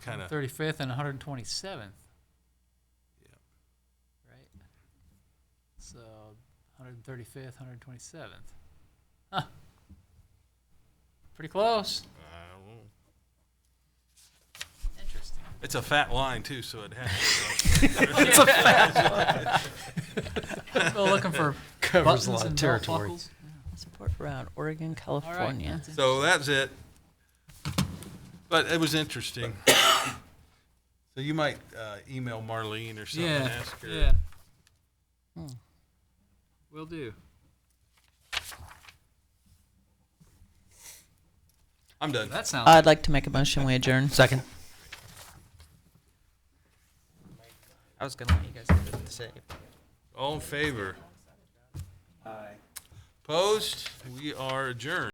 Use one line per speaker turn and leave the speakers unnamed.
kind of,
35th and 127th. Right? So 135th, 127th. Huh. Pretty close. Interesting.
it's a fat line too, so it has.
Well, looking for
Covers
buttons
a lot of
and belt
territory.
buckles.
Support around Oregon,
All right,
California.
that's it.
So that's it. But it was interesting. So you might uh, email Marlene or something, and
yeah,
ask her.
yeah.
Hmm.
Will do.
I'm done.
That sounds.
I'd like to make a motion, we adjourn.
Second. I was gonna let you guys do it to say.
All in favor? Aye. Opposed? We are adjourned.